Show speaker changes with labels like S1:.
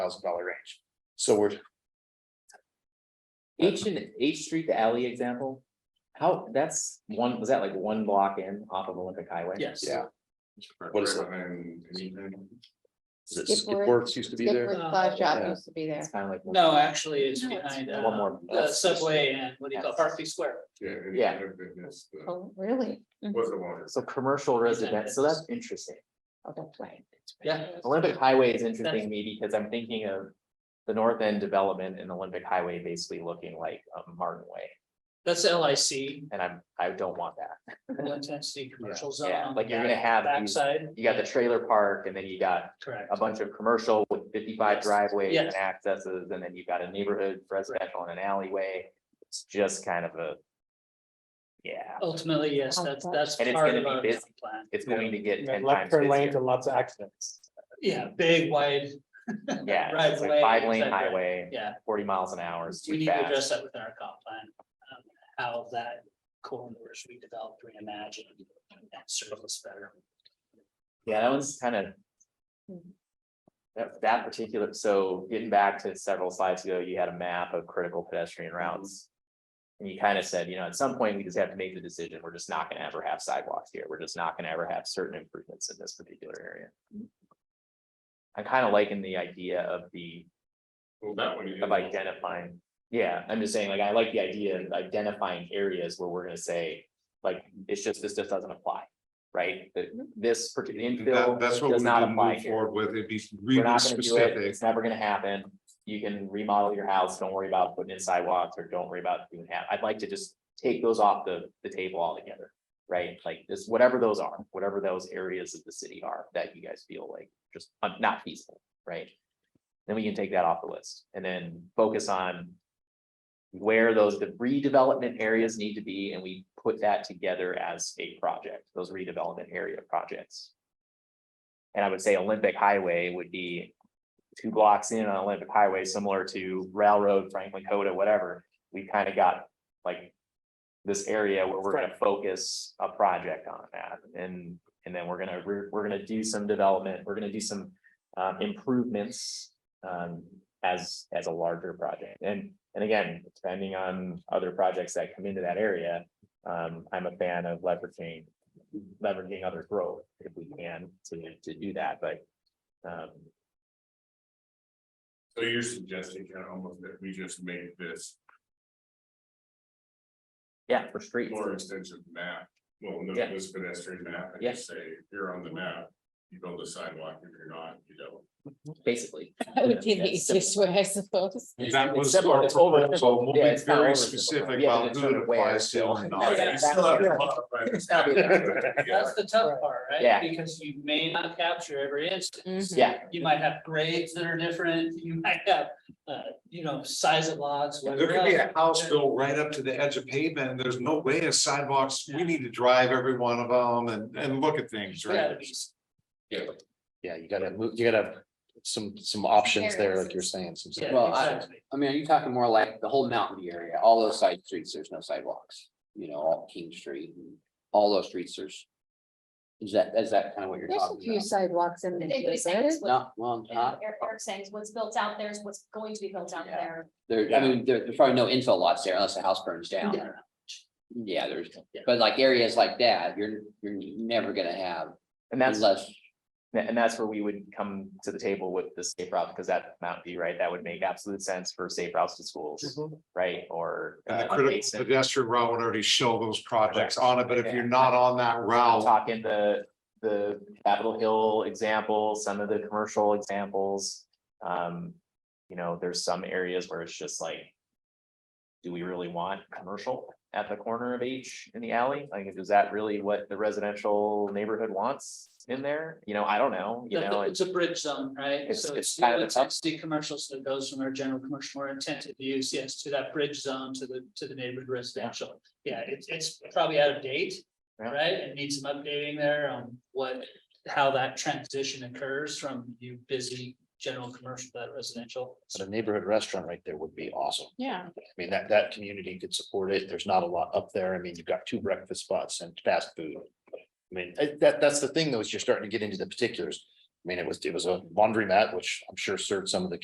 S1: thousand dollar range. So we're,
S2: H and H Street, the alley example, how, that's one, was that like one block in off of Olympic Highway?
S3: Yes.
S1: yeah, What is it? is it
S4: Skip Worth-
S1: Skipworks used to be
S4: Skip
S1: there?
S4: Worth
S1: Yeah.
S4: Plow Shop uh, used to be there.
S2: It's kind of like. one-
S3: No, actually, it's
S4: No, it's
S3: behind
S4: not.
S2: One
S3: uh,
S2: more.
S3: the subway and what do you call it, Berkeley Square.
S2: Yeah.
S4: Oh, really? Mm.
S5: Was the one.
S2: So commercial residence, so that's interesting.
S4: Oh, that's right.
S3: Yeah.
S2: Olympic Highway is interesting to me because I'm thinking of the north end development in Olympic Highway basically looking like um, Martin Way,
S3: That's L I C,
S2: and I'm, I don't want that.
S3: low intensity commercial zone.
S2: Yeah,
S3: on
S2: like
S3: the
S2: you're gonna
S3: back-
S2: have these-
S3: Backside.
S2: You got the
S3: Yeah,
S2: trailer park and then you got
S3: Correct.
S2: a bunch of commercial with fifty-five
S3: Yes.
S2: driveways
S3: Yes.
S2: and accesses, and then you've got a neighborhood residential and an alleyway. It's just kind of a. Yeah,
S3: Ultimately, yes, that's, that's
S2: And it's
S3: part
S2: gonna
S3: of
S2: be
S3: our
S2: busy.
S3: town plan.
S2: it's going to get ten
S6: Left
S2: times
S6: turn lanes
S2: busier.
S6: and lots of accidents.
S3: Yeah, big, wide,
S2: Yeah, it's like
S3: driveway,
S2: five lane
S3: exactly.
S2: highway,
S3: yeah.
S2: forty miles an hour is
S3: We
S2: too
S3: need to
S2: fast.
S3: address that within our comp plan, um, how that corridor should be developed, reimagined, and service better.
S2: Yeah, that one's kind of.
S4: Mhm.
S2: That, that particular, so getting back to several slides ago, you had a map of critical pedestrian routes. And you kind of said, you know, at some point, we just have to make the decision, we're just not gonna ever have sidewalks here, we're just not gonna ever have certain improvements in this particular area. I'm kind of liking the idea of the,
S5: Well, that one. you
S2: of
S5: didn't-
S2: identifying, yeah, I'm just saying, like, I like the idea of identifying areas where we're gonna say. Like, it's just, this just doesn't apply, right, that this particular
S5: Mm-hmm. That,
S2: infill
S5: that's what we
S2: does not
S5: didn't
S2: apply
S5: move
S2: here.
S5: forward with, it'd be
S2: We're
S5: really
S2: not gonna do it,
S5: specific.
S2: it's never gonna happen, you can remodel your house, don't worry about putting in sidewalks, or don't worry about doing that, I'd like to just take those off the, the table altogether. Right, like this, whatever those are, whatever those areas of the city are that you guys feel like just un- not feasible, right? Then we can take that off the list, and then focus on. Where those de- redevelopment areas need to be, and we put that together as a project, those redevelopment area projects. And I would say Olympic Highway would be two blocks in on Olympic Highway, similar to Railroad, Franklin Coda, whatever. We kind of got like this area where we're gonna focus a project on that and, and then we're gonna, we're, we're gonna do some development, we're gonna do some um, improvements um, as, as a larger project. And, and again, depending on other projects that come into that area, um, I'm a fan of leveraging, leveraging other growth if we can to, to do that, but um,
S5: So you're suggesting kind of almost that we just made this
S2: yeah, for streets.
S5: more extensive map, well, no,
S2: Yeah.
S5: this pedestrian map, and
S2: Yeah.
S5: just say, you're on the map. You build a sidewalk, if you're not, you don't.
S2: Basically.
S4: That would be the
S2: That's simple.
S4: easiest way, I suppose.
S5: That
S2: It's
S5: was
S2: simple,
S5: our
S2: it's over-
S5: proposal, we'll
S2: yeah,
S5: be
S2: it's not
S5: very
S2: over-
S5: specific
S2: we have to
S5: about who it
S2: determine where
S5: applies to.
S2: still.
S5: and not.
S3: Yeah.
S5: You still have to modify this. Yeah.
S3: That's the tough part, right?
S2: Yeah.
S3: Because you may not capture every instance.
S4: Mhm.
S2: Yeah,
S3: You might have grades that are different, you might have, uh, you know, size of lots.
S5: There could be a house built right up to the edge of pavement, and there's no way of sidewalks, we need to drive every one of them and, and look at things, right?
S1: Yeah, you gotta move, you gotta have some, some options there, like you're saying, some.
S7: Well, I- I mean, are you talking more like the whole mountain view area, all those side streets, there's no sidewalks, you know, all King Street, and all those streets, there's. Is that, is that kind of what you're
S4: There's a
S7: talking
S4: few
S7: about?
S4: sidewalks in
S8: They- they
S4: there.
S8: say it's what-
S7: No, well, not,
S8: Eric Eric's saying is what's built out there is what's going to be built out
S7: Yeah.
S8: there.
S7: there, I mean, there, there's probably no infill lots there unless the house burns down. Yeah, there's, but like areas like that, you're, you're never gonna have
S2: and that's,
S7: unless,
S2: and that's where we would come to the table with the safe route, because that Mountain View, right, that would make absolute sense for safe routes to schools, right, or.
S5: Mm-hmm. And the
S2: uh,
S5: critical
S2: adjacent-
S5: pedestrian route would already show those projects on it, but if
S2: Yeah.
S5: you're not on that
S2: I'm
S5: route,
S2: Talking the, the Capitol Hill example, some of the commercial examples. Um, you know, there's some areas where it's just like. Do we really want commercial at the corner of H in the alley? Like, is that really what the residential neighborhood wants in there? You know, I don't know, you know, it's,
S3: It's a bridge zone, right?
S2: It's-
S3: So
S2: it's
S3: it's
S2: kind of
S3: low
S2: a tough-
S3: intensity commercials that goes from our general commercial more intensive use, yes, to that bridge zone to the, to the neighborhood residential. Yeah, it's, it's probably out of date,
S2: Yeah.
S3: right? It needs some updating there on what, how that transition occurs from you busy general commercial to that residential.
S1: But a neighborhood restaurant right there would be awesome.
S4: Yeah.
S1: I mean, that, that community could support it. There's not a lot up there. I mean, you've got two breakfast spots and fast food. I mean, eh, that, that's the thing though, is you're starting to get into the particulars. I mean, it was, it was a laundromat, which I'm sure served some of the